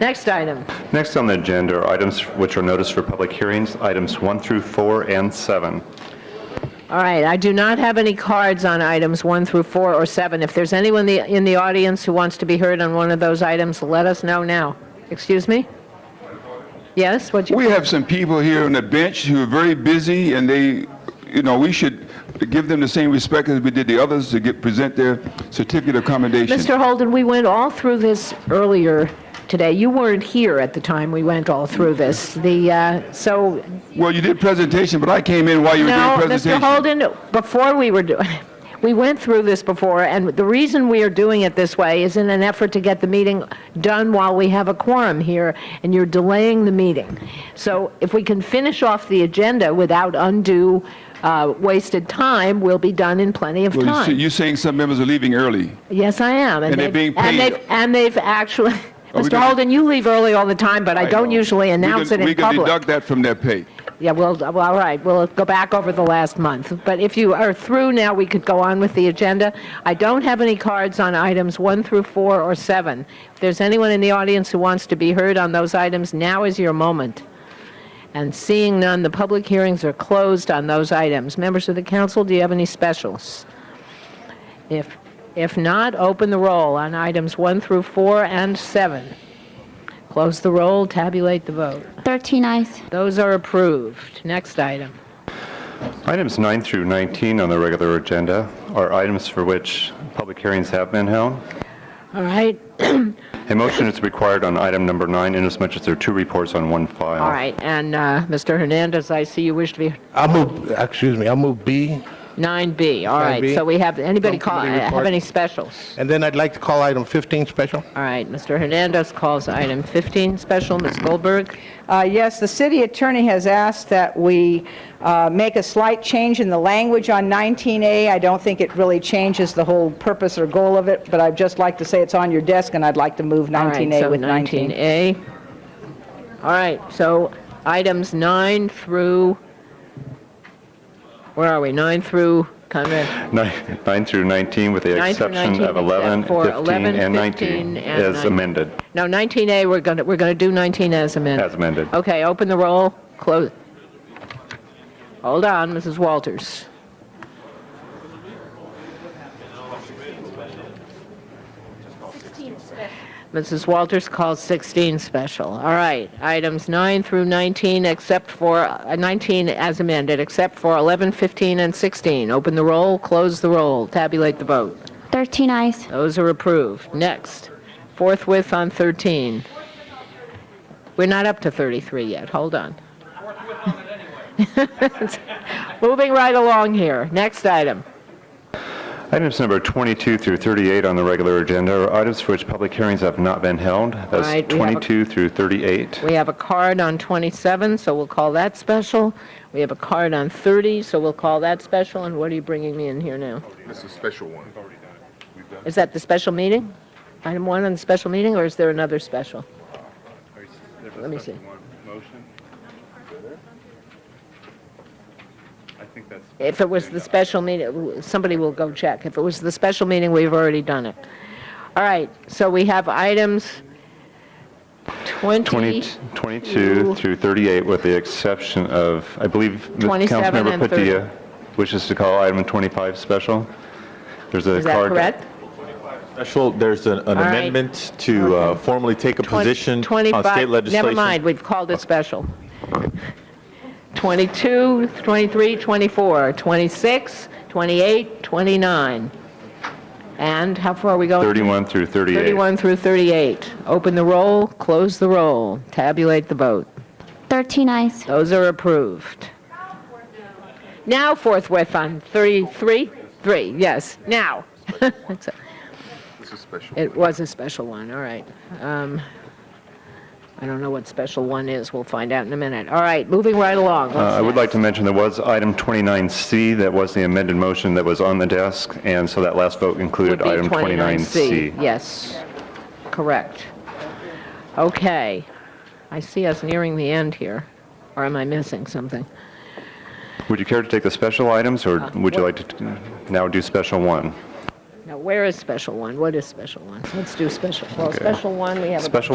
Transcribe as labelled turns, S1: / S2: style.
S1: Next item.
S2: Next on the agenda are items which are noticed for public hearings, items 1 through 4 and 7.
S1: All right, I do not have any cards on items one through four or seven. If there's anyone the- in the audience who wants to be heard on one of those items, let us know now. Excuse me? Yes, what you,
S3: We have some people here on the bench who are very busy, and they, you know, we should give them the same respect as we did the others to get, present their certificate of commendation.
S1: Mr. Holden, we went all through this earlier today. You weren't here at the time we went all through this. The, uh, so,
S3: Well, you did presentation, but I came in while you were doing
S1: no, Mr.
S3: presentation.
S1: Holden, before we were doing, we went through this before, and the reason we are doing it this way is in an effort to get the meeting done while we have a quorum here, and you're delaying the meeting. So if we can finish off the agenda without undue uh, wasted time, we'll be done in plenty of
S3: Well, you see-
S1: time.
S3: You're saying some members are leaving early.
S1: Yes, I am.
S3: And they're
S1: they've-
S3: being
S1: And
S3: paid.
S1: they've, and they've actually,
S3: Oh, we
S1: Mr.
S3: didn't-
S1: Holden, you leave early all the time, but I don't
S3: know.
S1: usually
S3: We
S1: announce
S3: can-
S1: it in
S3: We can
S1: public.
S3: deduct that from their pay.
S1: Yeah, well, d- well, all right, we'll go back over the last month. But if you are through now, we could go on with the agenda. I don't have any cards on items one through four or seven. If there's anyone in the audience who wants to be heard on those items, now is your moment. And seeing none, the public hearings are closed on those items. Members of the council, do you have any specials? If, if not, open the roll on items one through four and seven. Close the roll, tabulate the vote.
S4: 13 eyes.
S1: Those are approved. Next item.
S2: Items 9 through 19 on the regular agenda are items for which public hearings have been held.
S1: All right,
S2: A motion is required on item number 9 inasmuch as there are two reports on one file.
S1: all right, and uh, Mr. Hernandez, I see you wish to be,
S5: I move, excuse me, I move B,
S1: 9B, all right,
S5: 9B.
S1: so we have, anybody
S5: Don't
S1: call,
S5: committee
S1: have
S5: report.
S1: any specials?
S5: and then I'd like to call item 15 special.
S1: All right, Mr. Hernandez calls item 15 special, Ms. Goldberg.
S6: Uh, Yes, the city attorney has asked that we uh, make a slight change in the language on 19A. I don't think it really changes the whole purpose or goal of it, but I'd just like to say it's on your desk, and I'd like to move
S1: All right,
S6: 19A
S1: so
S6: with 19.
S1: 19A. All right, so items 9 through, where are we, 9 through, Conrad?
S2: Nine 9 through 19 with the
S1: Nine through
S2: exception
S1: 19,
S2: of 11,
S1: except for
S2: 15,
S1: 11,
S2: and
S1: 15,
S2: 19
S1: and
S2: as
S1: 19.
S2: amended.
S1: No, 19A, we're going to, we're going to do 19 as amended.
S2: As amended.
S1: Okay, open the roll, close. Hold on, Mrs. Walters. Mrs. Walters calls 16 special. All right, items 9 through 19, except for, uh, 19 as amended, except for 11, 15, and 16. Open the roll, close the roll, tabulate the vote.
S4: 13 eyes.
S1: Those are approved. Next, forthwith on 13. We're not up to 33 yet, hold on. Moving right along here, next item.
S2: Items number 22 through 38 on the regular agenda are items for which public hearings have not been held.
S1: Right,
S2: That's
S1: we have a-
S2: 22 through 38.
S1: We have a card on 27, so we'll call that special. We have a card on 30, so we'll call that special, and what are you bringing me in here now?
S7: It's a special one.
S1: Is that the special meeting? Item one on the special meeting, or is there another special? Let me see. If it was the special meeting, somebody will go check. If it was the special meeting, we've already done it. All right, so we have items 20,
S2: 20 22 through 38 with the exception of, I believe, the
S1: 27
S2: Councilmember
S1: and 30.
S2: Padilla wishes to call item 25 special. There's a
S1: is that
S2: card.
S1: correct?
S8: Special, there's an an
S1: right.
S8: amendment to uh, formally take a position on
S1: 25
S8: state legislation.
S1: Never mind, we've called it special. 22, 23, 24, 26, 28, 29. And how far are we going?
S2: 31 through 38.
S1: 31 through 38. Open the roll, close the roll, tabulate the vote.
S4: 13 eyes.
S1: Those are approved. Now forthwith on 33, 3, yes, now.
S7: It's a special.
S1: It was a special one, all right. Um, I don't know what special one is, we'll find out in a minute. All right, moving right along.
S2: Uh, I
S1: What's
S2: would like to mention there was item 29C, that was the amended motion that was on the desk, and so that last vote included
S1: would be
S2: item 29C.
S1: Yes, correct. Okay, I see us nearing the end here, or am I missing something?
S2: Would you care to take the special items, or would you
S1: what-
S2: like to t- now do special one?
S1: Now, where is special one? What is special one? Let's do special, well, special one, we have a
S2: Special